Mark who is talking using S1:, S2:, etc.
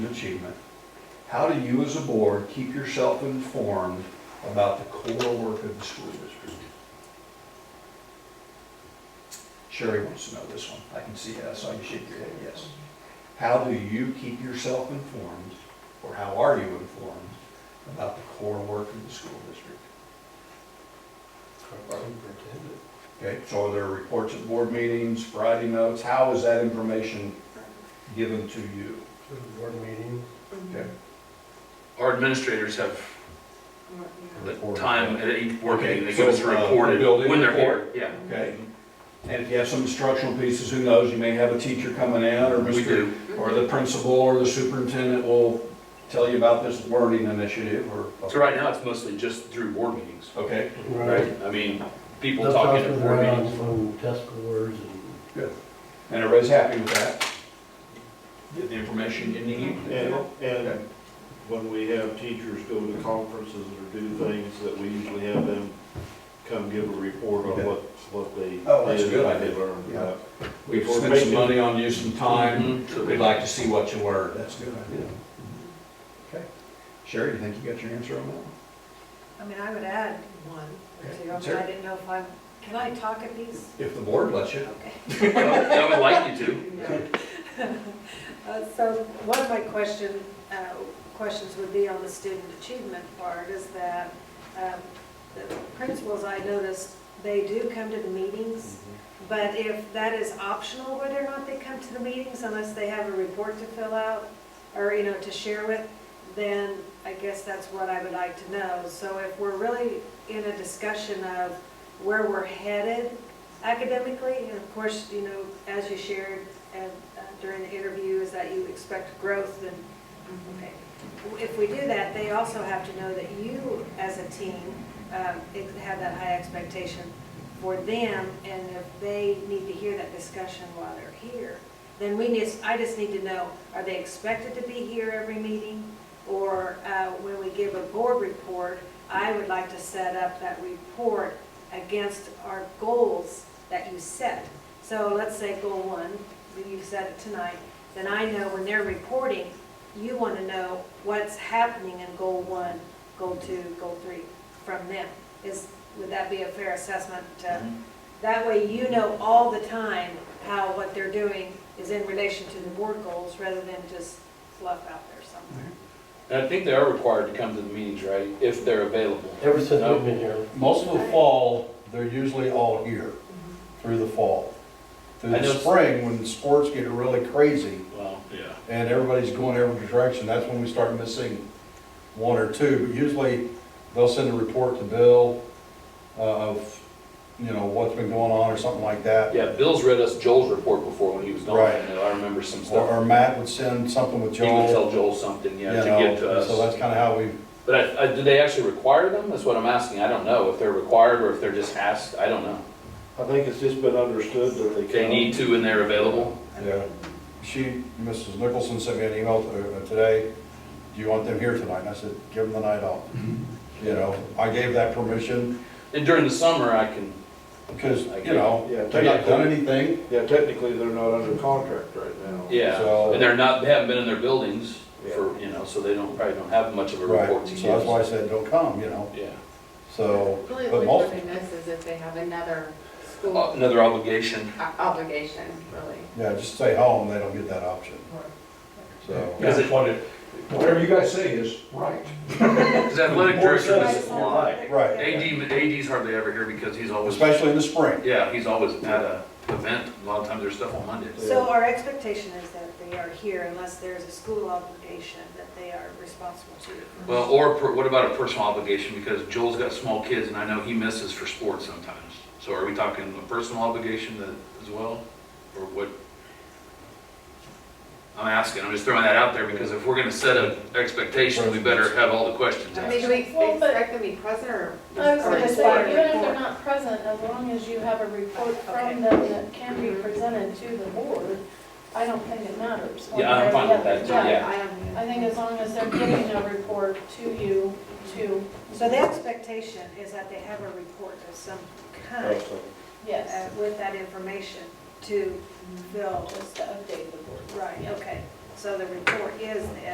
S1: achievement, how do you as a board keep yourself informed about the core work of the school district? Sherry wants to know this one, I can see, I saw you shake your head, yes. How do you keep yourself informed, or how are you informed about the core work of the school district? Okay, so are there reports at board meetings, Friday notes, how is that information given to you?
S2: To the board meeting.
S1: Okay,
S3: Our administrators have the
S1: Report.
S3: time at each work meeting, they
S1: Okay,
S3: give us a
S1: so, uh,
S3: report
S1: building
S3: when they're here,
S1: report.
S3: yeah.
S1: Okay, and if you have some instructional pieces, who knows, you may have a teacher coming in, or
S3: We
S1: Mr.
S3: do,
S1: Or the principal or the superintendent will tell you about this learning initiative, or.
S3: so right now, it's mostly just through board meetings,
S1: Okay,
S3: right? I mean, people
S2: That's
S3: talking
S2: also
S3: at board
S2: around
S3: meetings.
S2: From test scores and.
S1: and everybody's happy with that? Get the information you need?
S4: And,
S1: Okay.
S4: and when we have teachers go to conferences or do things, that we usually have them come give a report on what, what they did.
S1: Oh, that's a good
S4: what they
S1: idea.
S4: learned.
S1: Yeah.
S4: Uh,
S1: We've spent some money on you, some time,
S3: Mhm, so
S1: we'd
S3: they-
S1: like to see what you learned. That's a good idea. Okay. Sherry, you think you got your answer on that? one?
S5: I mean, I would add one or two, I mean, I didn't know if I'm, can I talk at these?
S1: If the board lets you.
S5: Okay.
S3: I would like you to.
S5: Uh, So one of my question, uh, questions would be on the student achievement part is that um, the principals I noticed, they do come to the meetings, but if that is optional, whether or not they come to the meetings unless they have a report to fill out or, you know, to share with, then I guess that's what I would like to know. So if we're really in a discussion of where we're headed academically, and of course, you know, as you shared, and uh, during the interview is that you expect growth and, okay. If we do that, they also have to know that you, as a team, um, ex- have that high expectation for them, and if they need to hear that discussion while they're here, then we need, I just need to know, are they expected to be here every meeting? Or uh, when we give a board report, I would like to set up that report against our goals that you set. So let's say goal one, that you've said it tonight, then I know when they're reporting, you want to know what's happening in goal one, goal two, goal three from them. Is, would that be a fair assessment? uh, That way you know all the time how what they're doing is in relation to the board goals rather than just fluff out there somewhere.
S6: And I think they are required to come to the meetings, right, if they're available.
S2: Ever since
S6: No.
S2: we've been here.
S7: Most of the fall, they're usually all here through the fall. Through
S6: I
S7: the
S6: know-
S7: spring, when sports get really crazy
S6: Well,
S3: Yeah.
S7: and everybody's going every direction, that's when we start missing one or two. But usually, they'll send a report to Bill uh, of, you know, what's been going on or something like that.
S6: yeah, Bill's read us Joel's report before when he was gone,
S7: Right.
S6: and I remember some
S7: Or
S6: stuff.
S7: or Matt would send something with
S6: He would
S7: Joel.
S6: tell Joel something,
S7: you
S6: yeah, to
S7: know,
S6: get to
S7: So
S6: us.
S7: that's kind of how we,
S6: But I, I, do they actually require them? That's what I'm asking. I don't know if they're required or if they're just asked. I don't know.
S4: I think it's just been understood that they come.
S6: They need to and they're available.
S7: yeah. She, Mrs. Nicholson sent me an email uh, today, do you want them here tonight? And I said, give them the night off.
S1: Mm-hmm.
S7: You know, I gave that permission
S6: And during the summer, I can,
S7: because, you know,
S4: Yeah,
S7: they've not done anything.
S4: Yeah, technically, they're not under contract right now.
S6: yeah,
S7: So-
S6: and they're not, they haven't been in their buildings for, you know, so they don't, probably don't have much of a
S7: Right,
S6: report to
S7: so that's why
S6: give.
S7: I said, don't come, you know,
S6: Yeah,
S7: so,
S8: Really,
S7: but
S8: what
S7: most,
S8: would be nice is if they have another school
S6: Uh, another obligation.
S8: o- obligation, really.
S7: yeah, just stay home, they don't get that option. So,
S6: Because it-
S1: That's what it- Whatever you guys say is right.
S6: Because athletic
S1: Board
S6: director,
S1: says
S6: is-
S1: it's right.
S7: right,
S6: AD, AD's hardly ever here because he's always
S7: especially in the spring.
S6: Yeah, he's always at a event, a lot of times there's stuff on Mondays.
S5: So our expectation is that they are here unless there's a school obligation that they are responsible to.
S6: Well, or per- what about a personal obligation, because Joel's got small kids and I know he misses for sports sometimes. So are we talking a personal obligation that, as well, or what? I'm asking, I'm just throwing that out there, because if we're gonna set an expectation, we better have all the questions
S8: I mean,
S6: asked.
S8: do we
S9: Well, but-
S8: expect them to be present or?
S9: I was
S8: or
S9: gonna
S8: just
S9: say,
S8: want a
S9: even if they're
S8: report?
S9: not present, as long as you have a report
S8: Okay.
S9: from them that can be presented to the board, I don't think it matters. one
S6: Yeah, I'm
S9: way or
S6: fine
S9: the
S6: with
S9: other.
S6: that, too,
S8: Yeah,
S6: yeah.
S8: I don't.
S9: I think as long as they're giving a report to you, to,
S5: So the expectation is that they have a report of some kind
S4: Also.
S9: yes,
S5: uh, with that information to fill.
S9: just to update the board.
S5: Right, okay. So the report is the